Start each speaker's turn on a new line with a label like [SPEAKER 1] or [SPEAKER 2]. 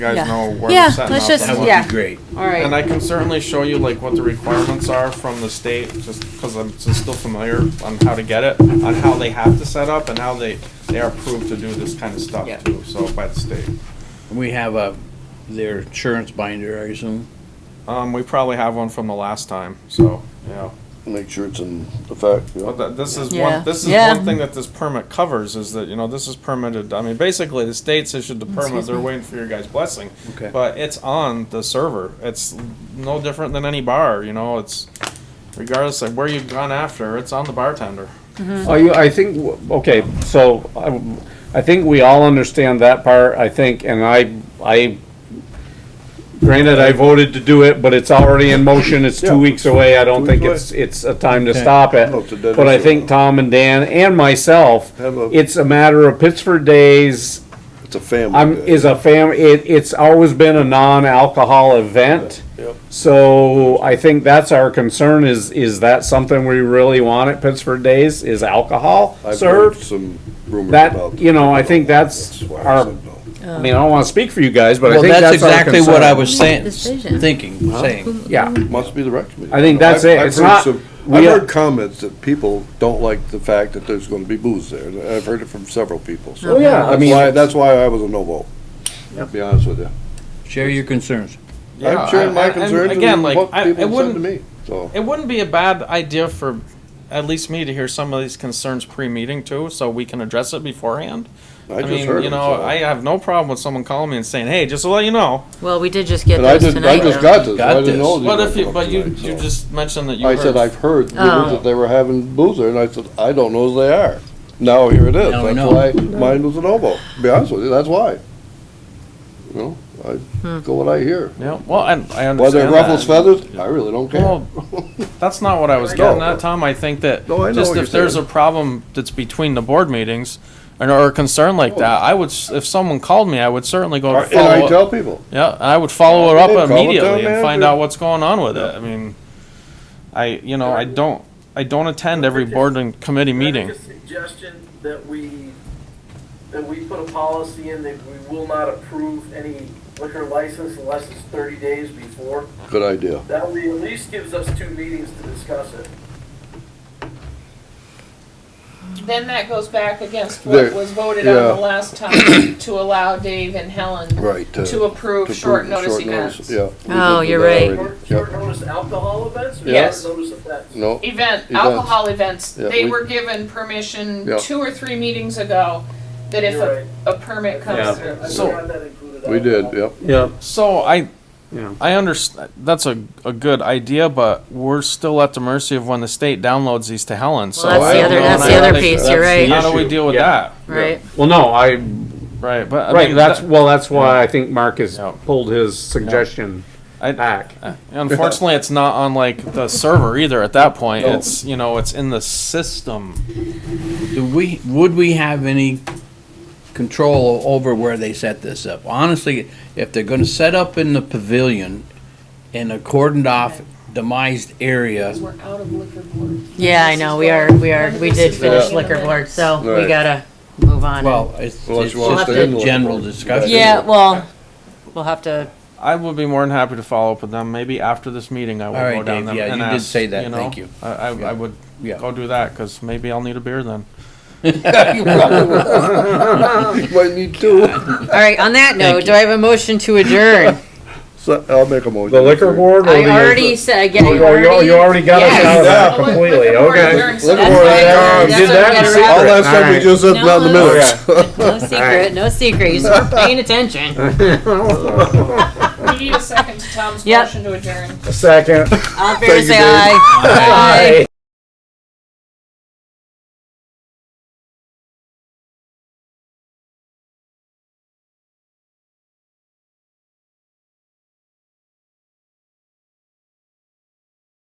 [SPEAKER 1] guys
[SPEAKER 2] Yeah.
[SPEAKER 1] know where
[SPEAKER 2] Yeah,
[SPEAKER 1] to set
[SPEAKER 2] let's
[SPEAKER 1] up
[SPEAKER 2] just-
[SPEAKER 1] and what-
[SPEAKER 3] That
[SPEAKER 2] Yeah.
[SPEAKER 3] would be great.
[SPEAKER 4] All right.
[SPEAKER 1] And I can certainly show you like what the requirements are from the state, just because I'm s- still familiar on how to get it, on how they have to set up and how they, they are approved to do this kind of stuff
[SPEAKER 4] Yeah.
[SPEAKER 1] too, so by the state.
[SPEAKER 3] We have a, their insurance binder, I assume.
[SPEAKER 1] Um, we probably have one from the last time, so, yeah.
[SPEAKER 5] Make sure it's in effect, you
[SPEAKER 1] But
[SPEAKER 5] know.
[SPEAKER 1] that, this is
[SPEAKER 2] Yeah.
[SPEAKER 1] one, this is
[SPEAKER 2] Yeah.
[SPEAKER 1] one thing that this permit covers, is that, you know, this is permitted, I mean, basically, the state's issued the permit,
[SPEAKER 2] Excuse
[SPEAKER 1] they're
[SPEAKER 2] me.
[SPEAKER 1] waiting for your guys' blessing.
[SPEAKER 3] Okay.
[SPEAKER 1] But it's on the server, it's no different than any bar, you know, it's, regardless of where you've gone after, it's on the bartender.
[SPEAKER 6] Are you, I think, w- okay, so um, I, I think we all understand that part, I think, and I, I, granted, I voted to do it, but it's already in motion, it's
[SPEAKER 5] Yeah.
[SPEAKER 6] two weeks away, I don't
[SPEAKER 5] Two
[SPEAKER 6] think
[SPEAKER 5] weeks
[SPEAKER 6] it's, it's a time to stop it.
[SPEAKER 5] No, it's a dead
[SPEAKER 6] But I
[SPEAKER 5] issue.
[SPEAKER 6] think Tom and Dan and myself,
[SPEAKER 5] Have a-
[SPEAKER 6] it's a matter of Pittsford Days,
[SPEAKER 5] It's a family.
[SPEAKER 6] I'm,
[SPEAKER 5] day.
[SPEAKER 6] is a fam, it, it's always been a non-alcohol event.
[SPEAKER 5] Yep.
[SPEAKER 6] So I think that's our concern is, is that something we really want at Pittsburgh Days is alcohol
[SPEAKER 5] I've heard
[SPEAKER 6] served?
[SPEAKER 5] some rumors
[SPEAKER 6] That,
[SPEAKER 5] about.
[SPEAKER 6] you know, I think that's
[SPEAKER 5] why I
[SPEAKER 6] our-
[SPEAKER 5] said no.
[SPEAKER 6] I mean, I don't wanna speak for you guys, but I
[SPEAKER 3] Well,
[SPEAKER 6] think
[SPEAKER 3] that's
[SPEAKER 6] that's our
[SPEAKER 3] exactly what I
[SPEAKER 6] concern.
[SPEAKER 3] was
[SPEAKER 2] We
[SPEAKER 3] saying,
[SPEAKER 2] made a decision.
[SPEAKER 3] thinking, saying.
[SPEAKER 6] Yeah,
[SPEAKER 5] Must be the rec committee.
[SPEAKER 6] I think that's
[SPEAKER 5] I've-
[SPEAKER 6] it.
[SPEAKER 5] I've
[SPEAKER 6] It's
[SPEAKER 5] heard
[SPEAKER 6] not-
[SPEAKER 5] some-
[SPEAKER 6] we
[SPEAKER 5] I've
[SPEAKER 6] are-
[SPEAKER 5] heard comments that people don't like the fact that there's gonna be booze there. I've heard it from several people, so.
[SPEAKER 6] Oh, yeah, I
[SPEAKER 5] That's
[SPEAKER 6] mean-
[SPEAKER 5] why, that's why I was a no vote, to be honest with you.
[SPEAKER 3] Share your concerns.
[SPEAKER 1] Yeah,
[SPEAKER 5] I'm sharing my
[SPEAKER 1] and- and
[SPEAKER 5] concerns
[SPEAKER 1] again,
[SPEAKER 5] and
[SPEAKER 1] like,
[SPEAKER 5] what
[SPEAKER 1] I- it
[SPEAKER 5] people have said to
[SPEAKER 1] wouldn't-
[SPEAKER 5] me, so.
[SPEAKER 1] It wouldn't be a bad idea for at least me to hear some of these concerns pre-meeting too, so we can address it beforehand.
[SPEAKER 5] I just
[SPEAKER 1] mean,
[SPEAKER 5] heard
[SPEAKER 1] you
[SPEAKER 5] it,
[SPEAKER 1] know,
[SPEAKER 5] so-
[SPEAKER 1] I have no problem with someone calling me and saying, "Hey, just to let you know."
[SPEAKER 2] Well, we did just get
[SPEAKER 5] And I
[SPEAKER 2] those
[SPEAKER 5] just,
[SPEAKER 2] tonight.
[SPEAKER 5] I
[SPEAKER 2] though.
[SPEAKER 5] just got this, I
[SPEAKER 3] Got
[SPEAKER 5] didn't
[SPEAKER 3] this.
[SPEAKER 5] know. these
[SPEAKER 1] But
[SPEAKER 5] were
[SPEAKER 1] if you,
[SPEAKER 5] coming
[SPEAKER 1] but you,
[SPEAKER 5] tonight,
[SPEAKER 1] you
[SPEAKER 5] so.
[SPEAKER 1] just mentioned that you.
[SPEAKER 5] I said, I've heard rumors
[SPEAKER 2] Oh.
[SPEAKER 5] that they were having booze there, and I said, I don't know as they are. Now here it is,
[SPEAKER 3] Now we
[SPEAKER 5] that's
[SPEAKER 3] know.
[SPEAKER 5] why mine was a no vote, to be honest with you, that's why. You know, I go what I hear.
[SPEAKER 1] Yeah, well, and I understand
[SPEAKER 5] Whether
[SPEAKER 1] that.
[SPEAKER 5] it ruffles feathers, I really don't care.
[SPEAKER 1] Well, that's not what I was
[SPEAKER 5] No.
[SPEAKER 1] getting at, Tom. I think that
[SPEAKER 5] No, I know
[SPEAKER 1] just
[SPEAKER 5] what
[SPEAKER 1] if
[SPEAKER 5] you're
[SPEAKER 1] there's a
[SPEAKER 5] saying.
[SPEAKER 1] problem that's between the board meetings and or a concern like that, I would, s- if someone called me, I would certainly go and
[SPEAKER 5] And I
[SPEAKER 1] follow up.
[SPEAKER 5] tell people,
[SPEAKER 1] Yeah, I would follow it
[SPEAKER 5] Yeah, call
[SPEAKER 1] up
[SPEAKER 5] the town
[SPEAKER 1] immediately and find
[SPEAKER 5] manager.
[SPEAKER 1] out what's going on with it. I mean, I, you know, I don't, I don't attend every board and committee meeting.
[SPEAKER 7] Can I make a suggestion that we, that we put a policy in that we will not approve any liquor license unless it's thirty days before?
[SPEAKER 5] good idea.
[SPEAKER 7] That way at least gives us two meetings to discuss it.
[SPEAKER 8] Then that goes back against what
[SPEAKER 5] There-
[SPEAKER 8] was voted on
[SPEAKER 5] yeah.
[SPEAKER 8] the last time to allow Dave and Helen
[SPEAKER 5] Right. uh,
[SPEAKER 8] to approve short notice events.
[SPEAKER 5] Yeah. we
[SPEAKER 2] Oh,
[SPEAKER 5] did do
[SPEAKER 2] you're
[SPEAKER 5] that
[SPEAKER 2] right.
[SPEAKER 5] already.
[SPEAKER 7] Short- Short
[SPEAKER 5] Yep.
[SPEAKER 7] notice alcohol events or
[SPEAKER 8] Yes.
[SPEAKER 7] short notice events?
[SPEAKER 5] No,
[SPEAKER 8] Event,
[SPEAKER 5] Events.
[SPEAKER 8] alcohol events,
[SPEAKER 5] Yeah,
[SPEAKER 8] they
[SPEAKER 5] we-
[SPEAKER 8] were given permission
[SPEAKER 5] Yeah.
[SPEAKER 8] two or three meetings ago that if
[SPEAKER 7] You're
[SPEAKER 8] a, a permit
[SPEAKER 6] Yeah.
[SPEAKER 8] comes through.
[SPEAKER 7] I
[SPEAKER 1] So-
[SPEAKER 7] forgot that included
[SPEAKER 5] we did,
[SPEAKER 7] alcohol.
[SPEAKER 5] yep.
[SPEAKER 6] yeah.
[SPEAKER 1] So I,
[SPEAKER 6] Yeah.
[SPEAKER 1] I understand, that's a, a good idea, but we're still at the mercy of when the state downloads these to Helen, so.
[SPEAKER 2] Well, that's
[SPEAKER 1] I
[SPEAKER 2] the
[SPEAKER 1] don't
[SPEAKER 2] other,
[SPEAKER 1] know,
[SPEAKER 2] that's
[SPEAKER 1] and
[SPEAKER 2] the
[SPEAKER 1] I
[SPEAKER 2] other
[SPEAKER 1] think
[SPEAKER 2] piece,
[SPEAKER 1] that-
[SPEAKER 2] you're
[SPEAKER 5] that's the
[SPEAKER 2] right,
[SPEAKER 1] How do we deal with that?
[SPEAKER 2] right.
[SPEAKER 6] Well, no, I,
[SPEAKER 1] Right, but. I
[SPEAKER 6] right,
[SPEAKER 1] mean,
[SPEAKER 6] that's,
[SPEAKER 1] that-
[SPEAKER 6] well, that's why I think Mark has
[SPEAKER 1] Yeah.
[SPEAKER 6] pulled his suggestion
[SPEAKER 1] I-
[SPEAKER 6] back.
[SPEAKER 1] Unfortunately, it's not on like the server either at that point. It's, you know, it's in the system.
[SPEAKER 3] Do we, would we have any control over where they set this up? Honestly, if they're gonna set up in the pavilion in a cordoned off demised area,
[SPEAKER 8] We're out of liquor board.
[SPEAKER 2] Yeah, I know, we are, we are, we did finish
[SPEAKER 5] Yeah.
[SPEAKER 2] liquor board, so we
[SPEAKER 5] Right.
[SPEAKER 2] gotta move on.
[SPEAKER 3] well, it's
[SPEAKER 5] Unless
[SPEAKER 3] it's
[SPEAKER 5] you want
[SPEAKER 3] just
[SPEAKER 5] to
[SPEAKER 2] We'll
[SPEAKER 3] a
[SPEAKER 5] stay in
[SPEAKER 3] general
[SPEAKER 5] Lawrence.
[SPEAKER 3] discussion.
[SPEAKER 2] Yeah, well, we'll have to,
[SPEAKER 1] I would be more than happy to follow up with them. Maybe after this meeting, I will
[SPEAKER 3] All right,
[SPEAKER 1] go down
[SPEAKER 3] Dave,
[SPEAKER 1] them
[SPEAKER 3] yeah,
[SPEAKER 1] and
[SPEAKER 3] you did
[SPEAKER 1] ask,
[SPEAKER 3] say that.
[SPEAKER 1] know,
[SPEAKER 3] Thank you.
[SPEAKER 1] I, I, I would
[SPEAKER 3] Yeah.
[SPEAKER 1] go do that because maybe I'll need a beer then.
[SPEAKER 5] You might need two,
[SPEAKER 2] all right, on that note, do I have a motion to adjourn?
[SPEAKER 5] so I'll make a motion.
[SPEAKER 6] The liquor board or
[SPEAKER 2] I
[SPEAKER 6] the?
[SPEAKER 2] already said, I get,
[SPEAKER 6] Oh,
[SPEAKER 2] I
[SPEAKER 6] you- you, you already got us
[SPEAKER 2] Yes.
[SPEAKER 6] out of that
[SPEAKER 8] Yeah.
[SPEAKER 6] completely,
[SPEAKER 8] Liquor board
[SPEAKER 6] okay.
[SPEAKER 8] adjourned, so
[SPEAKER 5] Liquor
[SPEAKER 8] that's
[SPEAKER 5] board
[SPEAKER 8] why I
[SPEAKER 5] adjourned.
[SPEAKER 6] You
[SPEAKER 2] That's
[SPEAKER 6] did
[SPEAKER 2] what
[SPEAKER 6] that
[SPEAKER 2] we
[SPEAKER 6] in
[SPEAKER 2] gotta
[SPEAKER 6] secret.
[SPEAKER 2] wrap
[SPEAKER 6] Oh,
[SPEAKER 5] All
[SPEAKER 2] it.
[SPEAKER 5] that stuff we
[SPEAKER 6] Alright.
[SPEAKER 5] just said, not in the minutes.
[SPEAKER 2] No secret, no secret, you just paying attention.
[SPEAKER 8] We need a second to Tom's
[SPEAKER 2] Yep.
[SPEAKER 8] motion to adjourn.
[SPEAKER 6] Second.
[SPEAKER 2] All in favor,
[SPEAKER 5] Thank you,
[SPEAKER 2] say
[SPEAKER 5] Dave.
[SPEAKER 2] aye. Aye.